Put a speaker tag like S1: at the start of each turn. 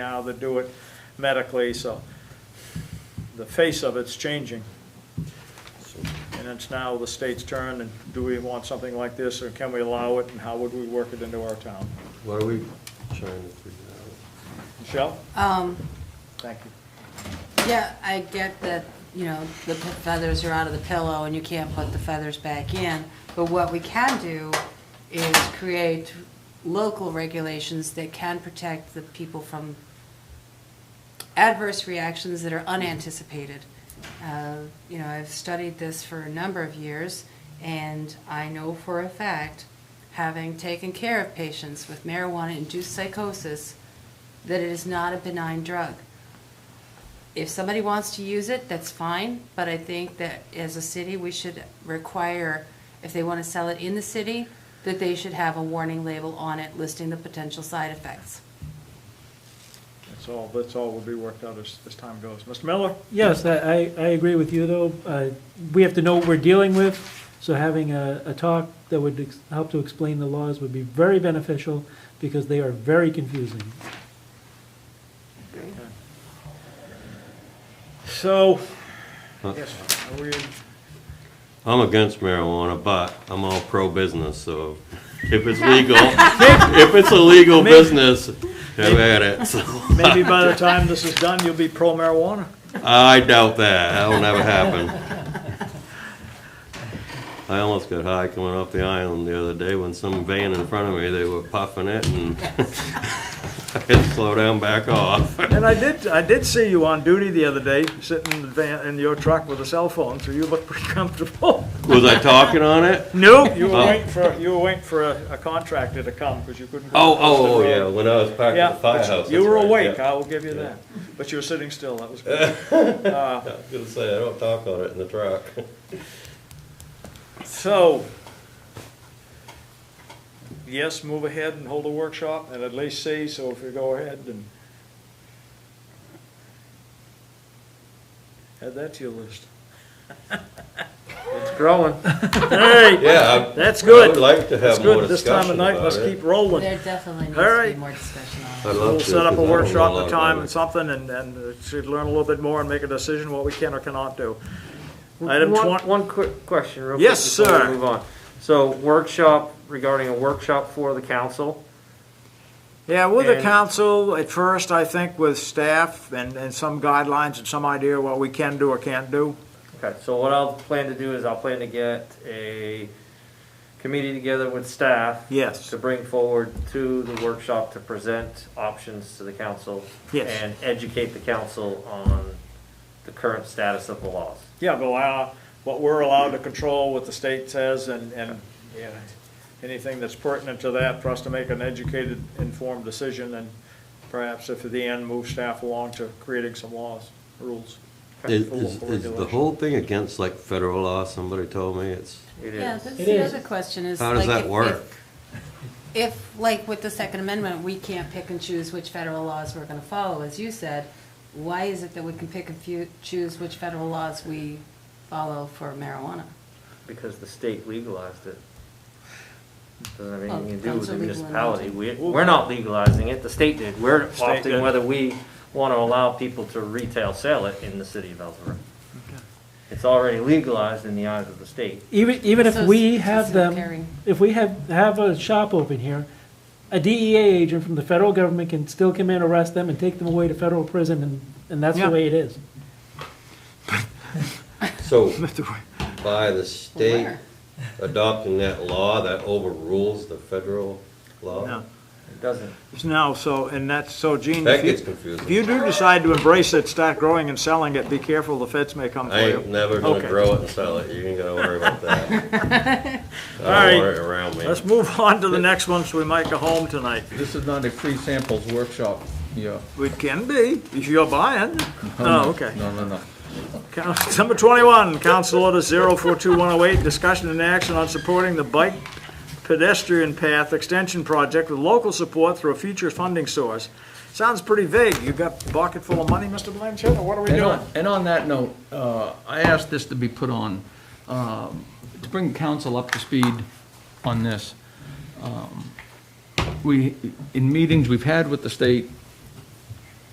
S1: now that do it medically, so the face of it's changing. And it's now the state's turn, and do we want something like this, or can we allow it, and how would we work it into our town?
S2: What are we trying to figure out?
S1: Michelle?
S3: Um,
S1: Thank you.
S3: yeah, I get that, you know, the p- feathers are out of the pillow and you can't put the feathers back in. But what we can do is create local regulations that can protect the people from adverse reactions that are unanticipated. Uh, You know, I've studied this for a number of years, and I know for a fact, having taken care of patients with marijuana-induced psychosis, that it is not a benign drug. If somebody wants to use it, that's fine, but I think that as a city, we should require, if they want to sell it in the city, that they should have a warning label on it listing the potential side effects.
S1: That's all, that's all will be worked out as, as time goes. Mr. Miller?
S4: Yes, I, I I agree with you, though. Uh, We have to know what we're dealing with, so having a, a talk that would ex- help to explain the laws would be very beneficial, because they are very confusing.
S1: So,
S2: Huh?
S1: yes, are we,
S2: I'm against marijuana, but I'm all pro-business, so if it's legal, if it's a legal
S1: Maybe-
S2: business, have at it, so.
S1: maybe by the time this is done, you'll be pro marijuana?
S2: I doubt that, that'll never happen. I almost got high coming off the island the other day when some van in front of me, they were puffing it and I had to slow down, back off.
S1: And I did, I did see you on duty the other day, sitting in the van, in your truck with a cell phone, so you look pretty comfortable.
S2: Was I talking on it?
S1: No, you were
S2: Oh.
S1: waiting for, you were waiting for a a contractor to come, because you couldn't. go
S2: Oh,
S1: across the
S2: oh, oh,
S1: road.
S2: yeah, when I was parked
S1: Yeah,
S2: at
S1: but
S2: the firehouse.
S1: you-
S2: that's
S1: you were
S2: right,
S1: awake,
S2: yeah.
S1: I will give you that, but you were sitting still, that was good. Uh,
S2: I was gonna say, I don't talk on it in the truck.
S1: So, yes, move ahead and hold a workshop, and at least see, so if you go ahead and add that to your list. It's growing. Hey,
S2: Yeah. I-
S1: that's
S2: I
S1: good.
S2: would like to
S1: That's
S2: have more
S1: good. This time of
S2: discussion
S1: night,
S2: about
S1: let's keep
S2: it.
S1: rolling.
S3: There definitely needs
S1: All
S3: to be
S1: right.
S3: more discussion on it.
S2: I'd love
S1: We'll
S2: to,
S1: set up a
S2: 'cause I don't know
S1: workshop at
S2: lot
S1: a
S2: about
S1: time
S2: it.
S1: and something, and, and uh, should learn a little bit more and make a decision what we can or cannot do. Item
S5: One-
S1: twen-
S5: One quick question, real quick.
S1: Yes,
S5: before we
S1: sir.
S5: Move on. So workshop regarding a workshop for the council.
S1: Yeah, with the
S5: And-
S1: council, at first, I think with staff and, and some guidelines and some idea what we can do or can't do.
S5: Okay, so what I'll plan to do is I'll plan to get a committee together with staff.
S1: Yes.
S5: To bring forward to the workshop to present options to the council.
S1: Yes.
S5: And educate the council on the current status of the laws.
S1: Yeah, go out, what we're allowed to control, what the state says, and, and, yeah, anything that's pertinent to that for us to make an educated, informed decision, and perhaps if at the end, move staff along to creating some laws, rules.
S2: Is,
S1: for
S2: is-
S1: local
S2: is the
S1: regulation.
S2: whole thing against like federal law, somebody told me, it's,
S5: It
S3: Yeah,
S5: is.
S3: that's
S4: It
S3: the
S4: is.
S3: other question is.
S2: how does
S3: like,
S2: that
S3: if- if-
S2: work?
S3: If, like with the Second Amendment, we can't pick and choose which federal laws we're gonna follow, as you said, why is it that we can pick and few, choose which federal laws we follow for marijuana?
S5: Because the state legalized it. Doesn't have
S3: Well,
S5: anything to do with
S3: Oh, council
S5: the
S3: legalized
S5: municipality.
S3: it.
S5: We, we're not legalizing it, the state did. We're
S1: State did.
S5: opting whether we want to allow people to retail sell it in the city of Ellsworth. It's already legalized in the eyes of the state.
S4: Even, even if
S3: So
S4: we
S3: it's-
S4: have
S3: it's not caring.
S4: them, if we have, have a shop open here, a DEA agent from the federal government can still come in, arrest them, and take them away to federal prison, and, and that's
S1: Yeah.
S4: the way it is.
S2: So by the state
S3: Where?
S2: adopting that law, that overrules the federal law?
S1: No.
S5: It doesn't.
S1: No, so, and that's, so Gene,
S2: That
S1: if
S2: gets
S1: you,
S2: confusing.
S1: if you do decide to embrace it, start growing and selling it, be careful, the feds may come for
S2: I
S1: you.
S2: ain't never gonna
S1: Okay.
S2: grow it and sell it, you ain't gotta worry about that. I
S1: Alright.
S2: don't want it around me.
S1: Let's move on to the next one, so we might go home tonight.
S6: This is not a free samples workshop, yeah.
S1: It can be, if you're buying. Oh, okay.
S6: No, no, no.
S1: Coun- Number 21, Council Order 042108, discussion and action on supporting the bike pedestrian path extension project with local support through a future funding source. Sounds pretty vague. You got a bucket full of money, Mr. Blanchett, or what are we
S6: And
S1: doing?
S6: on, and on that note, uh, I asked this to be put on, um, to bring council up to speed on this. Um, We, in meetings we've had with the state,